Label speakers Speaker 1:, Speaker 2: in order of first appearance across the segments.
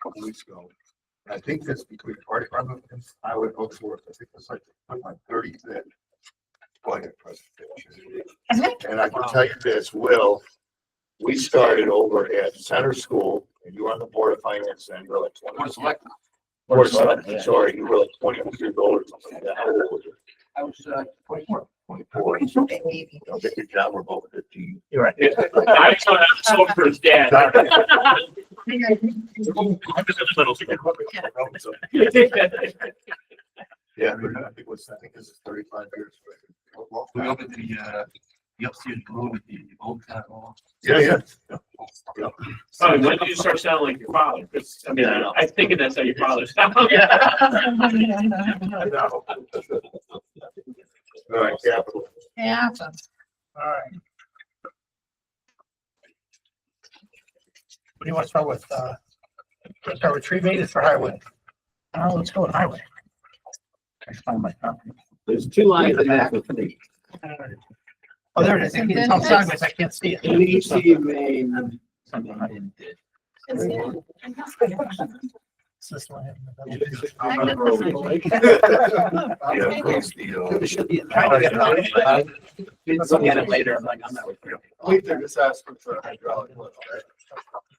Speaker 1: couple weeks ago. And I think that's between fire department and highway folks work. I think it's like, I'm like thirty then. Budget presentation. And I can tell you this, Will, we started over at Center School and you were on the Board of Finance then, you were like twenty. Board of Selectmen, sorry, you were like twenty-two years old or something. like that. How old were you?
Speaker 2: I was, uh,
Speaker 1: Twenty-four. Twenty-four.
Speaker 2: maybe.
Speaker 1: Don't get your job, we're both fifteen.
Speaker 3: You're right.
Speaker 4: I'm so, I'm so for his dad.
Speaker 3: I'm just in the middle.
Speaker 1: Yeah, but I think it was, I think this is thirty-five years.
Speaker 5: We opened the, uh, the upstairs door with the old kind of wall.
Speaker 1: Yeah, yeah. Yeah.
Speaker 4: Son, when did you start sounding like your father? 'Cause, I mean,
Speaker 5: Yeah, I know.
Speaker 4: I think that's how your father sounded.
Speaker 1: I know. All right, capital.
Speaker 2: Yeah.
Speaker 3: All right. What do you want to start with? Uh, let's start with tree maintenance for highway. Uh, let's go with highway. I should find my copy.
Speaker 6: There's two lines in that.
Speaker 3: Oh, there it is. It's all sideways. I can't see it.
Speaker 6: ABC main.
Speaker 3: Something I didn't do. It's this one.
Speaker 1: Yeah, of course, the, uh,
Speaker 6: It should be in
Speaker 3: Trying to get
Speaker 6: there.
Speaker 3: it.
Speaker 6: Didn't look at it later. I'm like, I'm not.
Speaker 5: We did this ask for the hydraulic lift.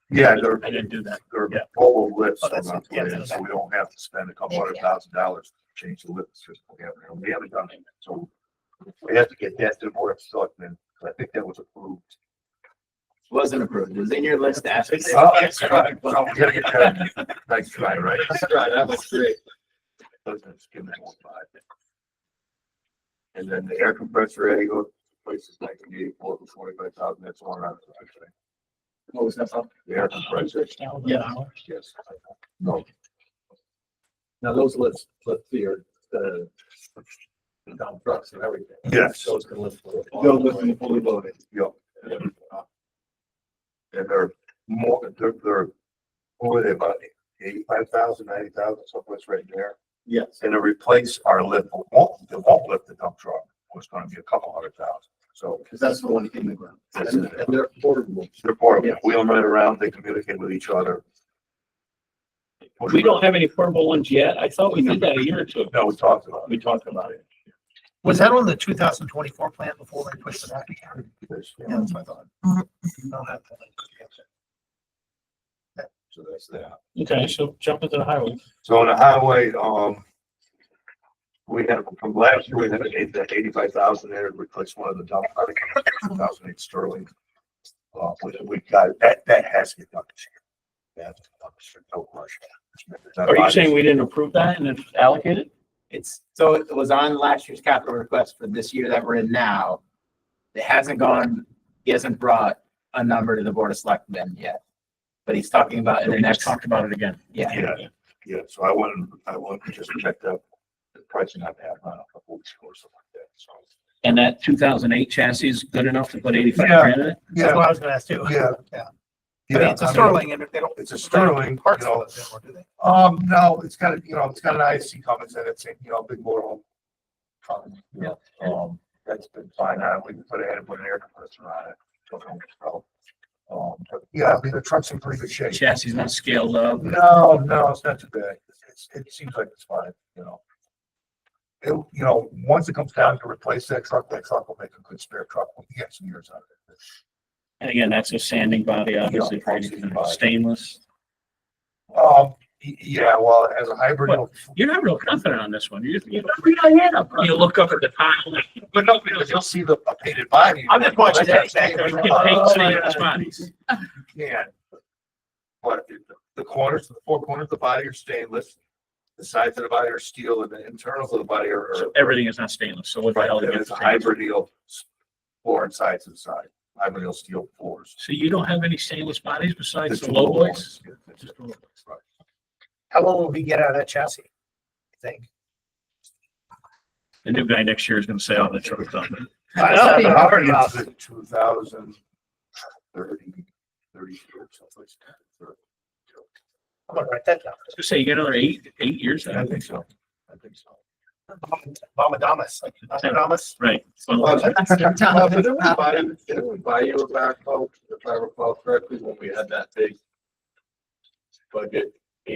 Speaker 1: Yeah, they're,
Speaker 3: I didn't do that.
Speaker 1: they're
Speaker 3: Yeah.
Speaker 1: all lifts
Speaker 3: Oh,
Speaker 1: on
Speaker 3: that's-
Speaker 1: our
Speaker 3: yeah,
Speaker 1: plan,
Speaker 3: that's-
Speaker 1: so we don't have to spend a couple hundred
Speaker 2: Yeah.
Speaker 1: thousand dollars to change the lift system. We haven't, we haven't done it, so we have to get that to the board of selectmen, 'cause I think that was approved.
Speaker 6: Wasn't approved. It was in your list after.
Speaker 1: Oh, that's right. Well, we gotta get that. Nice try, right?
Speaker 5: Right, that was great.
Speaker 1: Those are just give me one five. And then the air compressor, Eddie, go places nineteen eighty-four for forty-five thousand, that's one out of the
Speaker 6: What was that about?
Speaker 1: The air compressor,
Speaker 3: Yeah.
Speaker 1: yes. No,
Speaker 5: Now those lifts, lift here,
Speaker 6: uh,
Speaker 5: the the dump trucks and everything.
Speaker 1: Yes.
Speaker 5: So it's gonna lift.
Speaker 1: They'll lift them fully loaded. yeah. And they're more, they're, they're, what were they about, eighty-five thousand, ninety thousand, someplace right there?
Speaker 5: Yes.
Speaker 1: And to replace our lift, it won't, it won't lift the dump truck, was gonna be a couple hundred thousand, so.
Speaker 5: Cause that's the one in the ground. And and they're portable.
Speaker 1: They're portable, we don't run around, they communicate with each other.
Speaker 4: We don't have any portable ones yet. I thought we did that a year or two ago.
Speaker 1: No, we talked about
Speaker 4: We talked about it.
Speaker 3: Was that on the two thousand twenty-four plan before we pushed it back?
Speaker 1: it. There's-
Speaker 3: Yeah, that's what I thought.
Speaker 2: Mhm.
Speaker 3: I'll have to, like, catch it.
Speaker 1: So that's that.
Speaker 4: Okay, so jump into the highway.
Speaker 1: So on the highway, um, we had, from last year, we had eight- that eighty-five thousand there to replace one of the dump, I think, two thousand eight Sterling. Uh, we, we got, that, that has to get done this year. That's, no question.
Speaker 4: Are you saying we didn't approve that and it's allocated?
Speaker 6: It's, so it was on last year's capital request for this year that we're in now. It hasn't gone, he hasn't brought a number to the board of selectmen yet. But he's talking about in the
Speaker 4: We just
Speaker 6: next,
Speaker 4: talked about it again.
Speaker 6: yeah,
Speaker 1: Yeah, yeah, so I wouldn't, I wouldn't just check the, the pricing on that, uh, a couple weeks ago or something like that, so.
Speaker 4: And that two thousand eight chassis is good enough to put eighty-five
Speaker 1: Yeah.
Speaker 4: grand in it?
Speaker 3: That's what I was gonna ask too.
Speaker 1: Yeah.
Speaker 3: Yeah. I mean,
Speaker 1: Yeah,
Speaker 3: it's a
Speaker 1: I mean,
Speaker 3: Sterling and if they don't.
Speaker 1: It's a
Speaker 3: they don't have
Speaker 1: Sterling,
Speaker 3: Parts
Speaker 1: you know.
Speaker 3: of it anymore, do they?
Speaker 1: Um, no, it's got, a you know, it's got an IC comments in it, you know, big motor home. Yeah. Um, that's been fine, uh, we can put ahead and put an air compressor on it. so no problem. Um, but yeah, I mean, the truck's in pretty good shape.
Speaker 4: Chassis is not scaled up.
Speaker 1: No, no, it's not too bad. It's, it seems like it's fine, you know. It, you know, once it comes down to replace that truck, that truck will make a good spare truck. We can get some years out of it.
Speaker 4: And again, that's a sanding body, obviously,
Speaker 1: Yeah, sanding body.
Speaker 4: stainless.
Speaker 1: Um, y- yeah, well, as a hybrid, it'll-
Speaker 4: You're not real confident on this one. You, you read my hand up. You look up at the top.
Speaker 1: but no, because you'll see the updated body.
Speaker 3: I'm just watching that.
Speaker 4: You can paint some of those bodies.
Speaker 1: Yeah. But the- the corners, the four corners of the body are stainless. The sides of the body are steel and the internals of the body are. are-
Speaker 4: So everything is not stainless, so what the
Speaker 1: Right,
Speaker 4: hell?
Speaker 1: and
Speaker 4: gets
Speaker 1: it's a hybrid steel floor and sides inside, hybrid steel steel floors.
Speaker 4: So you don't have any stainless bodies besides
Speaker 1: Just
Speaker 4: the low boys?
Speaker 1: ones. Yeah,
Speaker 4: Just
Speaker 1: just-
Speaker 4: the low boys.
Speaker 1: right.
Speaker 3: How long will we get out of that chassis? I think.
Speaker 4: The new guy next year is gonna say, oh, the truck's done.
Speaker 3: I know.
Speaker 1: I've been operating since 2030, 32 or something like that. Or-
Speaker 3: I'm gonna write that down.
Speaker 4: So say you get another eight, eight years
Speaker 1: I
Speaker 4: out of it.
Speaker 1: think so. I think so.
Speaker 3: Bomadamas, like Bomadamas.
Speaker 4: Right. Well,
Speaker 5: Well, Well,
Speaker 2: That's
Speaker 5: didn't we buy, didn't we buy you a backhoe, if I recall correctly, when we had that big budget